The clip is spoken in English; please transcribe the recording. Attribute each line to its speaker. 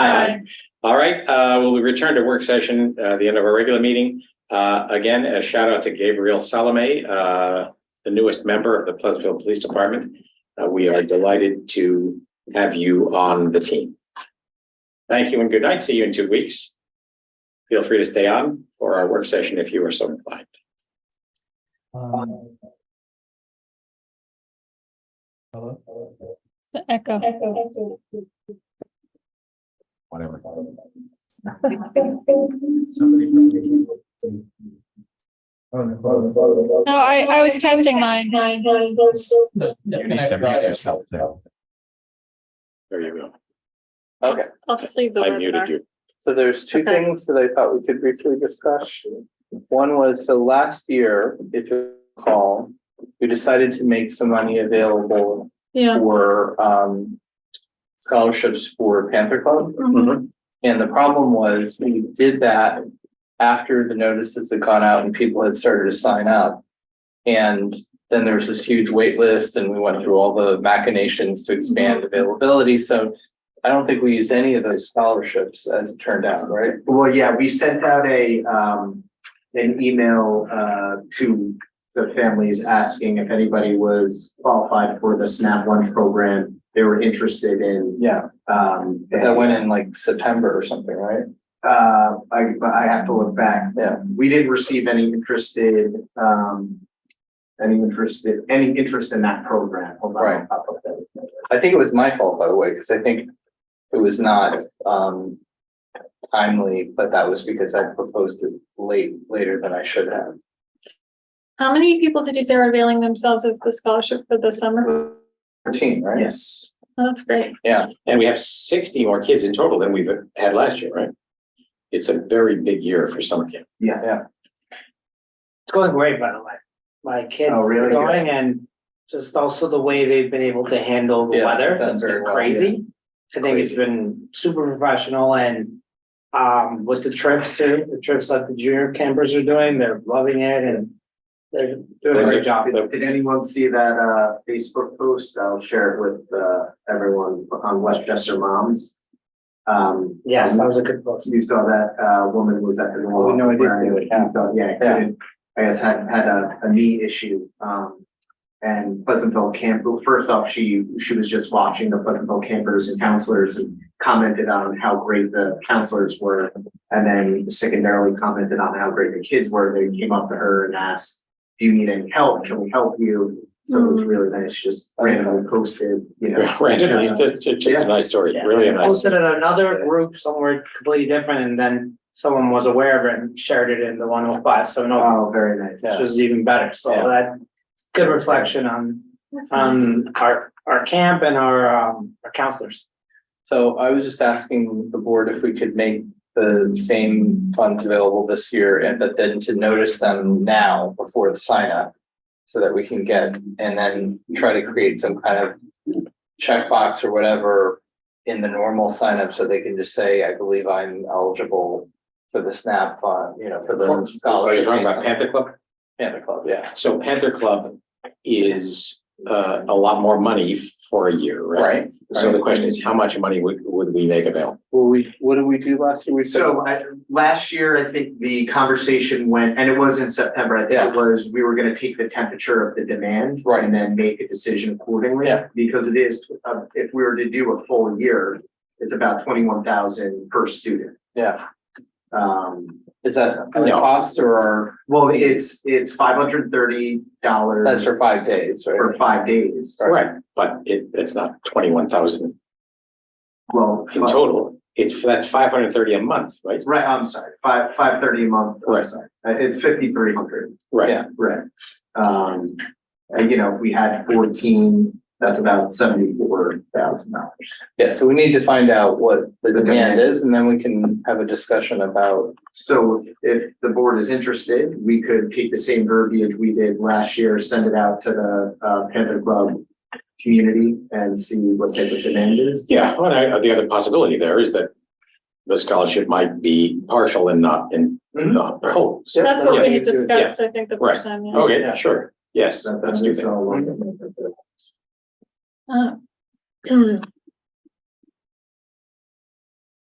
Speaker 1: Aye. All right, uh, we'll return to work session, uh, the end of our regular meeting. Uh, again, a shout out to Gabriel Salome, uh, the newest member of the Pleasantville Police Department. Uh, we are delighted to have you on the team. Thank you and good night. See you in two weeks. Feel free to stay on for our work session if you are so inclined.
Speaker 2: Um, Hello?
Speaker 3: The echo.
Speaker 1: Whatever.
Speaker 2: Somebody. Oh, no.
Speaker 3: No, I, I was testing mine.
Speaker 1: You need to mute yourself now. There you
Speaker 4: Okay,
Speaker 3: I'll just leave the
Speaker 1: go. I muted
Speaker 3: webinar.
Speaker 1: you.
Speaker 4: so there's two
Speaker 3: Okay.
Speaker 4: things that I thought we could briefly discuss. One was, so last year, if you recall, we decided to make some money available
Speaker 3: Yeah.
Speaker 4: for um scholarships for Panther Club.
Speaker 1: Mhm.
Speaker 4: And the problem was, we did that after the notices had gone out and people had started to sign up. And then there was this huge wait list, and we went through all the machinations to
Speaker 5: Mm-hmm.
Speaker 4: expand availability, so. I don't think we used any of those scholarships as it turned out, right?
Speaker 5: Well, yeah, we sent out a, um, an email, uh, to the families asking if anybody was qualified for the SNAP lunch program they were interested in,
Speaker 4: Yeah,
Speaker 5: um.
Speaker 4: that went in like September or something, right?
Speaker 5: Uh, I, but I have to look back.
Speaker 4: Yeah.
Speaker 5: We didn't receive any interested, um, any interested, any interest in that program. Hold on, I'll
Speaker 4: Right.
Speaker 5: pop up that.
Speaker 4: I think it was my fault, by the way, because I think it was not um timely, but that was because I proposed it late, later than I should have.
Speaker 3: How many people did you say were availing themselves of the scholarship for the summer?
Speaker 4: Fourteen, right?
Speaker 5: Yes.
Speaker 3: Oh, That's great.
Speaker 4: Yeah,
Speaker 1: And we have sixty more kids in total than we've had last year, right? It's a very big year for summer camp.
Speaker 5: Yes.
Speaker 4: Yeah.
Speaker 2: It's going great, by the way. My kids
Speaker 5: Oh,
Speaker 2: are
Speaker 5: really?
Speaker 2: going and just also the way they've been able to handle the
Speaker 4: Yeah,
Speaker 2: weather,
Speaker 4: done
Speaker 2: that's
Speaker 4: very
Speaker 2: been
Speaker 4: well,
Speaker 2: crazy. I think it's
Speaker 4: Crazy.
Speaker 2: been super professional and um with the trips too, the trips that the junior campers are doing, they're loving it and they're doing a great job.
Speaker 5: Did, did anyone see that uh Facebook post? I'll share it with uh everyone on Westchester Moms. Um.
Speaker 2: Yes, that was a good post.
Speaker 5: You saw that uh woman was at the.
Speaker 4: Oh, no, I did see it, yeah.
Speaker 5: So, yeah, couldn't, I guess had had a a knee issue. Um. And Pleasantville camp, well, first off, she she was just watching the Pleasantville campers and counselors and commented on how great the counselors were. And then secondarily commented on how great the kids were. They came up to her and asked, do you need any help? Can we help you? So it was really nice, She just randomly posted, you know.
Speaker 1: Randomly, just, just a nice story, really a nice.
Speaker 2: Posted in another group somewhere completely different and then someone was aware of it and shared it in the one oh five, so no,
Speaker 5: Oh, very nice.
Speaker 2: which was even better, so
Speaker 4: Yeah.
Speaker 2: that. Good reflection on
Speaker 3: That's
Speaker 4: Um,
Speaker 3: nice.
Speaker 2: on Um, our, our camp and our, um, our counselors.
Speaker 4: so I was just asking the board if we could make the same funds available this year and but then to notice them now before the sign up. So that we can get and then try to create some kind of checkbox or whatever in the normal sign up so they can just say, I believe I'm eligible. For the SNAP fund, you know, for
Speaker 1: Are
Speaker 4: the
Speaker 1: you
Speaker 4: scholarship.
Speaker 1: talking about Panther Club?
Speaker 4: Panther Club, yeah.
Speaker 1: So Panther Club is uh a lot more money for a year, right?
Speaker 4: Right.
Speaker 1: So the question is, how much money would would we make available?
Speaker 4: Well, we, what did we do last year? We said-
Speaker 5: So I, last year, I think the conversation went, and it was in September, I think
Speaker 4: Yeah.
Speaker 5: it was, we were gonna take the temperature of the demand.
Speaker 4: Right.
Speaker 5: And then make a decision accordingly.
Speaker 4: Yeah.
Speaker 5: Because it is, uh, if we were to do a full year, it's about twenty-one thousand per student.
Speaker 4: Yeah,
Speaker 5: Um,
Speaker 4: is that a
Speaker 1: No.
Speaker 4: cost or our-
Speaker 5: well, it's, it's five hundred and thirty dollars.
Speaker 4: that's for five days, right?
Speaker 5: For five days.
Speaker 1: Right. But it it's not twenty one thousand
Speaker 5: Well,
Speaker 1: in total. It's that's five hundred and thirty a month, right?
Speaker 5: right, I'm sorry, five, five thirty a month. I'm
Speaker 1: Right.
Speaker 5: sorry. Uh, It's fifty-three hundred.
Speaker 1: Right.
Speaker 4: Yeah.
Speaker 5: Right. Um, and, you know, if we had fourteen, that's about seventy-four thousand dollars.
Speaker 4: Yeah, so we need to find out what the
Speaker 5: The
Speaker 4: demand
Speaker 5: demand.
Speaker 4: is and then we can have a discussion about,
Speaker 5: So if the board is interested, we could take the same verbiage we did last year, send it out to the uh Panther Club community and see what type of demand is.
Speaker 1: Yeah, well, I, the other possibility there is that the scholarship might be partial and not in not whole. So-
Speaker 3: That's what
Speaker 4: Yeah. Oh,
Speaker 3: we discussed, I think, the
Speaker 1: Right.
Speaker 3: first time. yeah.
Speaker 1: Okay, sure. Yes,
Speaker 5: So
Speaker 1: let's do
Speaker 5: that's
Speaker 1: that.
Speaker 5: all.
Speaker 3: Uh,